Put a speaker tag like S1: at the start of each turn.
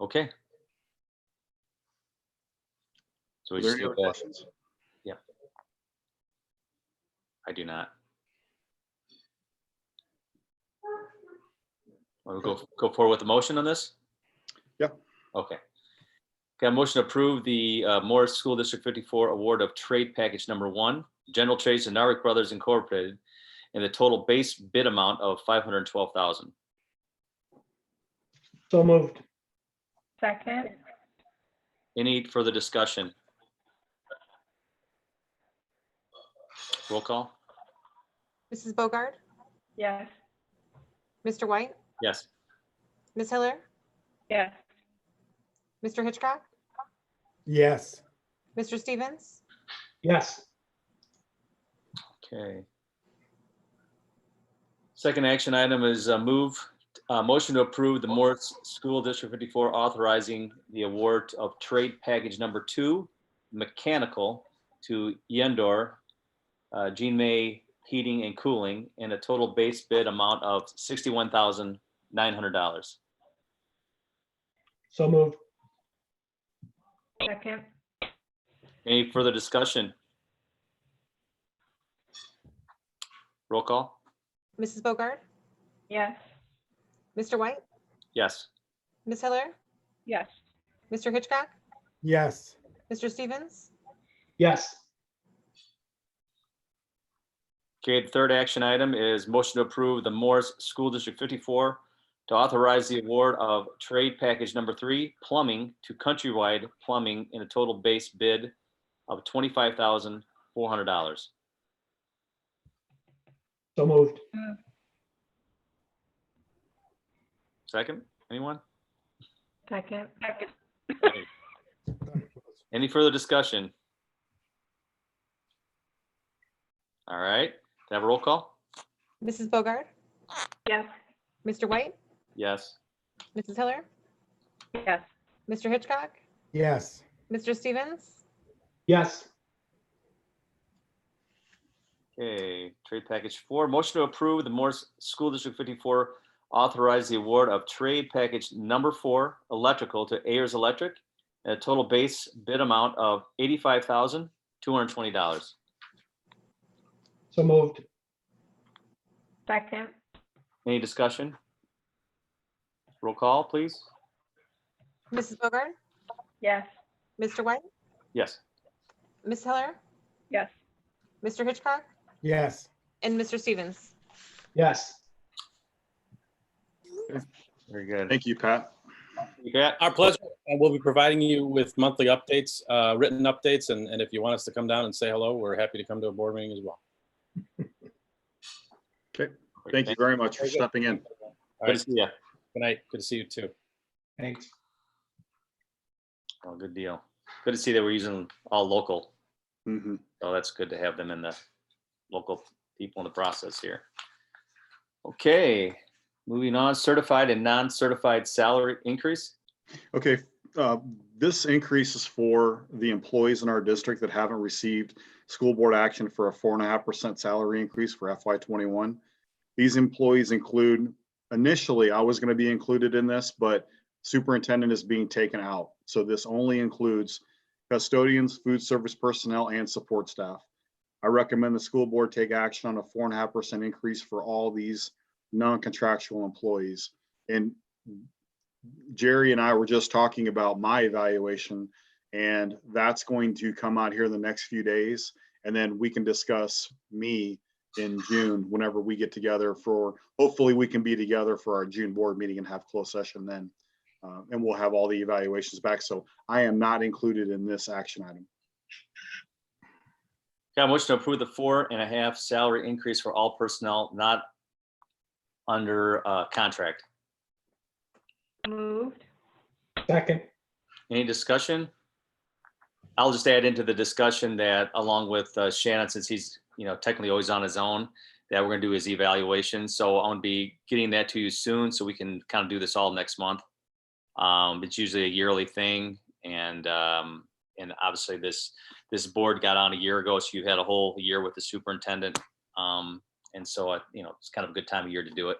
S1: Okay. So
S2: Are
S1: we
S2: there
S1: just
S2: any other
S1: leave that,
S2: questions?
S1: I do not. Wanna go, go forward with the motion on this?
S2: Yeah.
S1: Okay. Okay, a motion to approve the uh, Morris School District fifty-four award of trade package number one, General Trades and Narek Brothers Incorporated, and the total base bid amount of five hundred and twelve thousand.
S3: So moved.
S4: Second,
S1: Any further discussion? Roll call?
S5: Mrs. Bogard,
S4: yes.
S5: Mr. White,
S1: Yes.
S5: Ms. Hiller,
S4: Yes.
S5: Mr. Hitchcock,
S3: Yes.
S5: Mr. Stevens,
S3: Yes.
S1: Okay. Second action item is a move, uh motion to approve the Morris School District 54 authorizing the award of trade package number two, mechanical to Yendor, uh, Jean May Heating and Cooling in a total base bid amount of $61,900.
S3: So moved.
S4: Second,
S1: Any further discussion? Roll call?
S5: Mrs. Bogard,
S4: yes.
S5: Mr. White,
S1: Yes.
S5: Ms. Hiller,
S4: Yes.
S5: Mr. Hitchcock,
S3: Yes.
S5: Mr. Stevens,
S3: Yes.
S1: Okay, the third action item is motion to approve the Morris School District 54 to authorize the award of trade package number three, plumbing to Countrywide Plumbing in a total base bid of $25,400.
S3: So moved.
S1: Second, anyone?
S4: Second,
S1: Any further discussion? All right, can I have a roll call?
S5: Mrs. Bogard,
S4: yes.
S5: Mr. White,
S1: Yes.
S5: Mrs. Hiller,
S4: Yes.
S5: Mr. Hitchcock,
S3: Yes.
S5: Mr. Stevens,
S3: Yes.
S1: Okay, trade package four, motion to approve the Morris School District fifty-four authorize the award of trade package number four, electrical to Ayers Electric at a total base bid amount of eighty-five thousand, two hundred and twenty dollars.
S3: So moved.
S4: Second,
S1: Any discussion? Roll call, please.
S5: Mrs. Bogard,
S4: yes.
S5: Mr. White,
S1: Yes.
S5: Ms. Hiller,
S4: Yes.
S5: Mr. Hitchcock,
S3: Yes.
S5: and Mr. Stevens.
S3: Yes.
S1: Very good.
S2: Thank you, Pat.
S1: You got-
S6: Our pleasure. And we'll be providing you with monthly updates, uh, written updates, and, and if you want us to come down and say hello, we're happy to come to a board meeting as well.
S2: Thank you very much for
S6: Very good.
S2: stepping in.
S6: All
S1: Good
S6: right,
S1: to see you.
S6: good night. Good to see you too.
S3: Thanks.
S1: Oh, good deal. Good to see that we're using all local.
S2: Mhm.
S1: So Oh, that's good to have them in the local people in the process here. Okay, moving on, certified and non-certified salary increase.
S2: Okay, uh, this increase is for the employees in our district that haven't received school board action for a four and a half percent salary increase for FY twenty-one. These employees include, initially, I was gonna be included in this, but superintendent is being taken out. So this only includes custodians, food service personnel, and support staff. I recommend the school board take action on a four and a half percent increase for all these non-contractual employees. And Jerry and I were just talking about my evaluation, and that's going to come out here in the next few days. And then we can discuss me in June whenever we get together for, hopefully, we can be together for our June board meeting and have closed session then. Uh, And we'll have all the evaluations back. So I am not included in this action item.
S1: Got a motion to approve the four and a half salary increase for all personnel not under uh, contract.
S4: Moved,
S3: Second.
S1: Any discussion? I'll just add into the discussion that along with uh, Shannon, since he's, you know, technically always on his own, that we're gonna do his evaluation. So I'm gonna be getting that to you soon, so we can kind of do this all next month. Um, it's usually a yearly thing and, um, and obviously this, this board got on a year ago, so you had a whole year with the superintendent. Um, and so, I you know, it's kind of a good time of year to do it.